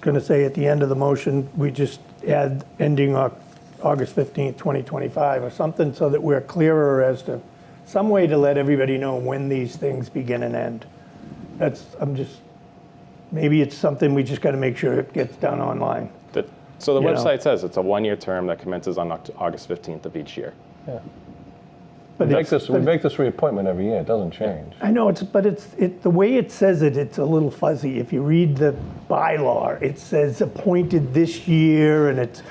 going to say at the end of the motion, we just add ending Au- August 15th, 2025 or something so that we're clearer as to, some way to let everybody know when these things begin and end. That's, I'm just, maybe it's something we just got to make sure it gets done online. The- so the You know. website says it's a one-year term that commences on Oct- August 15th of each year. But We make it's- this, we but- make this reappointment every year, it doesn't change. I know it's, but it's, it, the way it says it, it's a little fuzzy. If you read the bylaw, it says appointed this year and it's,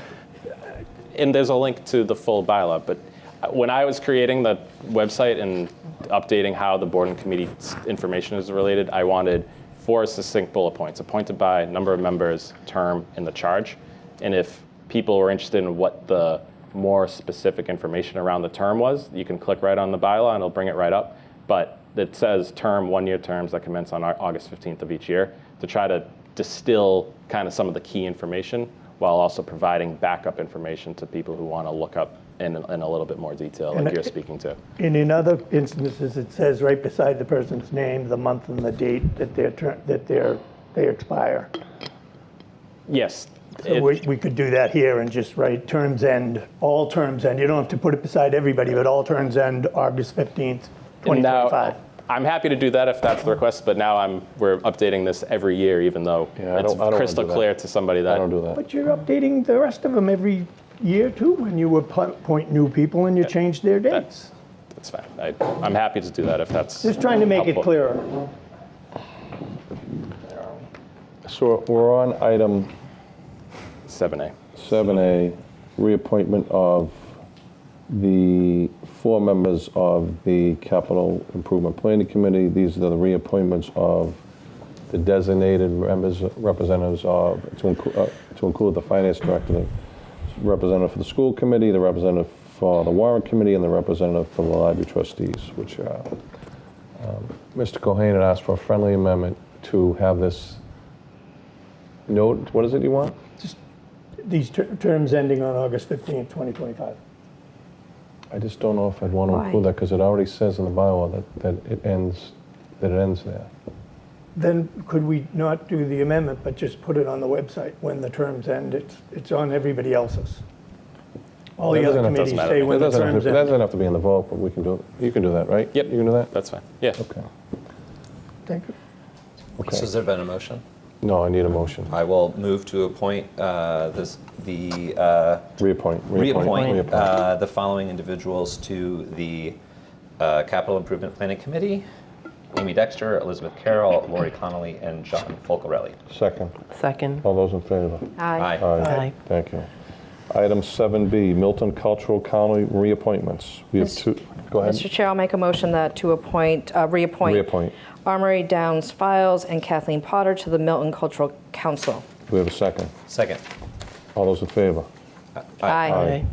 And there's a link to the full bylaw, but uh, when I was creating the website and updating how the board and committee s- information is related, I wanted four succinct bullet points, appointed by, number of members, term, and the charge. And if people were interested in what the more specific information around the term was, you can click right on the bylaw and it'll bring it right up. But it says term, one-year terms that commence on Au- August 15th of each year to try to distill kind of some of the key information while also providing backup information to people who want to look up in, in a little bit more detail, like And you're it- speaking to. and in other instances, it says right beside the person's name, the month and the date that their term, that their, they expire. Yes. So it- we, we could do that here and just write terms end, all terms end. You don't have to put it beside everybody, but all terms end August 15th, and 2025. Now, I'm happy to do that if that's the request, but now I'm we're updating this every year, even though Yeah, I it's don't- I don't wanna crystal do that. clear to somebody that I don't do that. But you're updating the rest of them every year too, when you appoint new people and you change their dates. That's fine. I, I'm happy to do that if that's. Just trying to make it helpful. clearer. So we're on item 7A. seven A, reappointment of the four members of the Capital Improvement Planning Committee. These are the reappointments of the designated members, representatives of, to include, to include the Finance Director, the representative for the School Committee, the representative for the Warrant Committee, and the representative for the Library Trustees, which are, um, Mr. Cohen had asked for a friendly amendment to have this note, what is it you want? These ter- terms ending on August 15th, 2025. I just don't know if I'd want to Why? include that, because it already says in the bylaw that, that it ends, that it ends there. Then could we not do the amendment, but just put it on the website when the terms end? It's, it's on everybody else's. All the That other doesn't have to- committees matter. say That when That the doesn't have terms to, that end. doesn't have to be in the vote, but we can do, it. you can do that, right? Yep. You can do that? That's fine. Yeah. Okay, Thank you. okay. So has there been a motion? No, I need a motion. I will move to appoint uh, this, the, uh, Reappoint. reappoint Reappoint. uh, the following individuals to the uh, Capital Improvement Planning Committee. Amy Dexter, Elizabeth Carroll, Lori Connolly, and John Folcarelli. Second. Second. All those in favor? Aye. Aye. Thank you. Item 7B, Milton Cultural County reappointments. We have Mis- two, go Mr. ahead. Chair, I'll make a motion that to appoint, uh, reappoint. Reappoint. Armory Downs Files and Kathleen Potter to the Milton Cultural Council. We have a second. Second. All those in favor? Aye.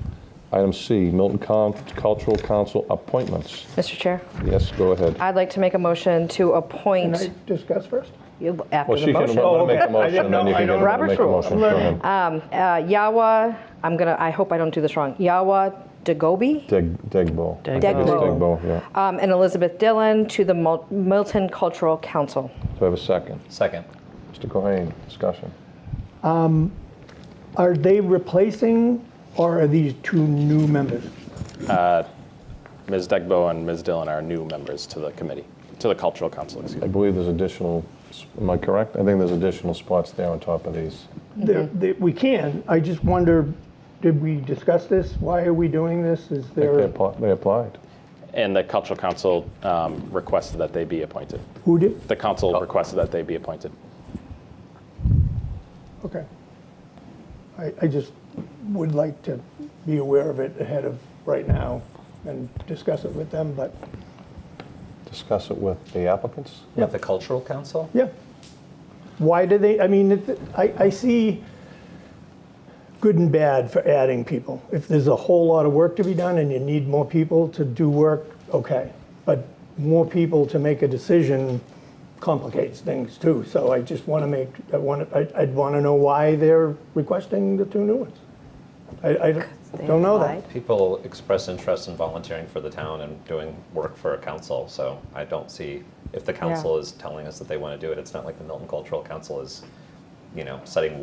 Item C, Milton Con- Cultural Council appointments. Mr. Chair, Yes, go ahead. I'd like to make a motion to Can I appoint, discuss first? you- after Well, the she can let motion. me make Oh, okay. a I motion, didn't and then know- you I can don't- get her to make Robert's a rules. motion. Go ahead. Uh, Yawa, I'm gonna, I hope I don't do this wrong, Yawa Dagobi Dig- Digbo. I think Digbo. it's Digbo. Digbo, yeah. um, and Elizabeth Dillon to the Mil- Milton Cultural Council. Do I have a second? Second. Mr. Cohen, discussion. Are they replacing or are these two new members? Ms. Degbo and Ms. Dillon are new members to the committee, to the cultural council. Excuse I me. believe there's additional, am I correct? I think there's additional spots there on top of these. They're- they- We can. I just wonder, did we discuss this? Why are we doing this? Is I think They there, appli- they applied. And the cultural council um, requested that they be appointed. who did? The council requested that they be appointed. Okay. I, I just would like to be aware of it ahead of right now and discuss it with them, but, Discuss it with the applicants? Of the Cultural Council? yeah. Why do they, I mean, it- I, I see good and bad for adding people. If there's a whole lot of work to be done and you need more people to do work, okay. But more people to make a decision complicates things too. So I just want to make, I want, to. I'd want to know why they're requesting the two new ones. I, I They don't know that. applied. People express interest in volunteering for the town and doing work for a council, so I don't see, if the council is telling us that they want to do it, it's not like the Milton Cultural Council is, you know, setting